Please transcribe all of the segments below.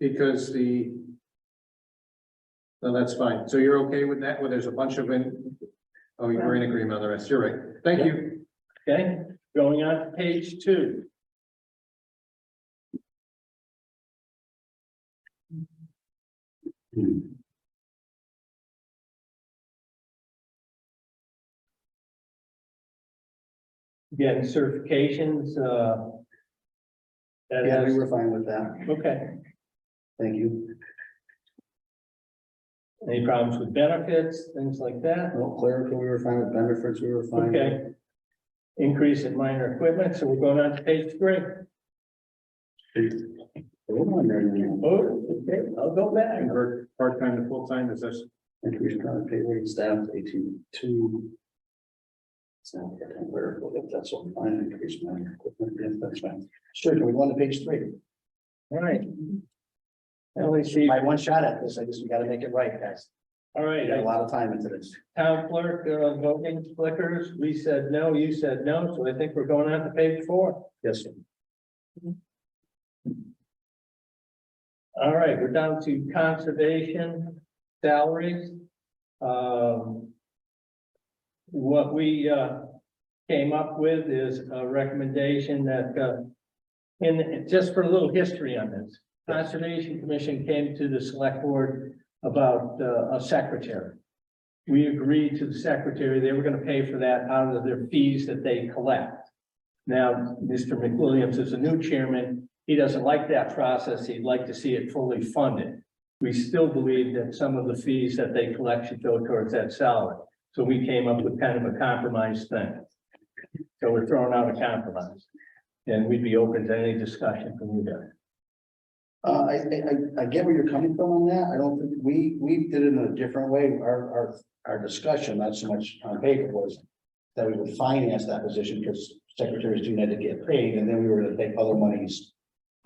because the. No, that's fine. So you're okay with that? Well, there's a bunch of, in- oh, you're in agreement on the rest. You're right. Thank you. Okay, going on to page two. Again, certifications, uh. That Yeah, we is, were fine with that. okay, Thank you. any problems with benefits, things like that, No clerical, we were fine with benefits, we were fine. okay. Increase in minor equipment, so we're going on to page three. Hold on there, you know. Oh, okay, I'll go back. Convert part-time to full-time, is this, Increase current pay rate staff eighteen two. It's not for clerical, if that's what mine increase my equipment, if that's fine. Sure, can we go on to page three? All right. Now we see, My one shot at this, I just, we gotta make it right, guys. all We right, got a I- lot of time into this. town clerk, uh, voting flickers, we said no, you said no, so I think we're going on to page four. Yes. sir. All right, we're down to conservation salaries. Um. What we, uh, came up with is a recommendation that, uh. And just for a little history on this, Conservation Commission came to the select board about, uh, a secretary. We agreed to the secretary, they were gonna pay for that out of their fees that they collect. Now, Mr. McWilliams is a new chairman, he doesn't like that process. He'd like to see it fully funded. We still believe that some of the fees that they collect should go towards that salary. So we came up with kind of a compromise thing. So we're throwing out a compromise. And we'd be open to any discussion from you guys. Uh, I, I, I, I get where you're coming from on that. I don't think, we, we did it in a different way. Our, our, our discussion, not so much on paper was. That we would finance that position because secretaries do need to get paid and then we were gonna take other monies.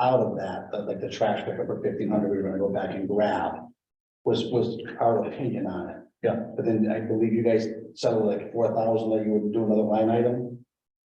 Out of that, but like the trash pickup for fifteen hundred, we were gonna go back and grab. Was, was our opinion on it. Yeah. But then I believe you guys settled like four thousand, that you would do another line item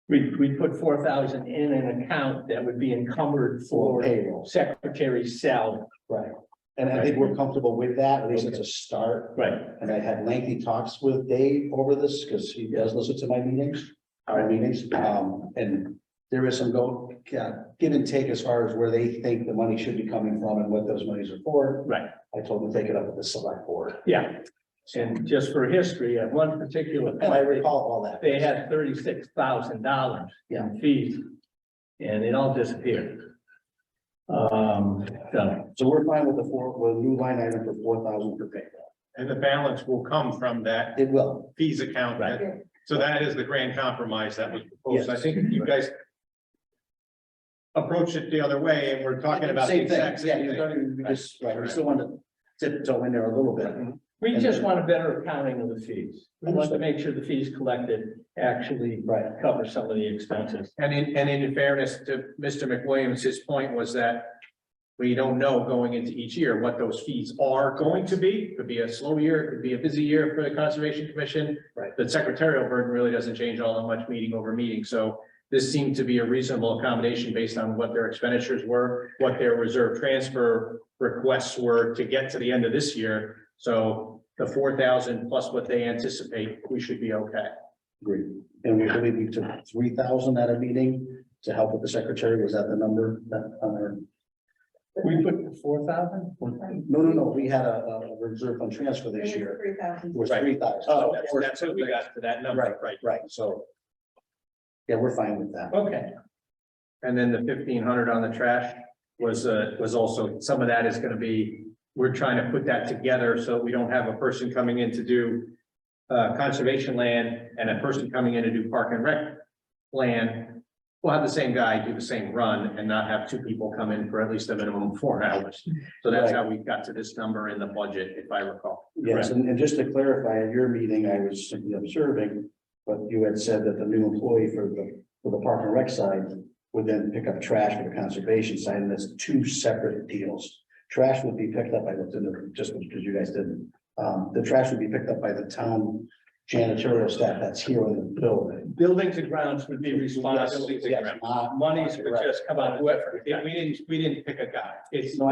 We, we put four thousand in an account that would be encumbered for for payroll. secretary's salary. Right. And I think we're comfortable with that. At least it's a start. Right. And I had lengthy talks with Dave over this, because he does listen to my meetings, our meetings, um, and. There is some go, yeah, give and take as far as where they think the money should be coming from and what those monies are for. Right. I told them to take it up with the select board, Yeah. And just for history, at one particular. and I point, recall all that. they had thirty-six thousand dollars Yeah. in fees, and it all disappeared. Um, so, So we're fine with the four, with a new line item for four thousand per payroll. and the balance will come from that It will. fees account. that- So that is the grand compromise that was proposed. I think you guys approached it the other way and we're talking about the exact Yeah, same you thing. don't even, we just, right, we still want to tiptoe in there a little bit. we just want a better accounting of the fees. We want to Understood. make sure the fees collected actually Right. cover some of the expenses. And in, and in fairness to Mr. McWilliams, his point was that we don't know going into each year what those fees are going to be. Could be a slow year, it could be a busy year for the Conservation Commission. Right. The secretarial burden really doesn't change all that much meeting over meeting, so this seemed to be a reasonable accommodation based on what their expenditures were, what their reserve transfer requests were to get to the end of this year. So the four thousand plus what they anticipate, we should be okay. Agreed. And we believe we took three thousand at a meeting to help with the secretary. Was that the number that on our? We put four thousand? No, no, no, we had a, a reserve fund transfer this year. Three thousand. It was Right. three thousand. Oh, So that's, that's what we got to that number, Oh, Right. right? Right, so. Yeah, we're fine with that. Okay, And then the fifteen hundred on the trash was, uh, was also, some of that is gonna be, we're trying to put that together so we don't have a person coming in to do uh, conservation land and a person coming in to do park and rec land. We'll have the same guy do the same run and not have two people come in for at least a minimum of four hours. So that's how we got to this number in the budget, if I recall. Yes, and, and just to clarify, at your meeting, I was simply observing, but you had said that the new employee for the, for the park and rec side would then pick up trash for the conservation side, and that's two separate deals. Trash would be picked up, I looked into, it just because you guys didn't, um, the trash would be picked up by the town janitorial staff that's here in the building. Uh, buildings and grounds would be responsible. Yes, yes, not- Monies would just come out, of whoever, We didn't, we didn't pick a guy. It's, No,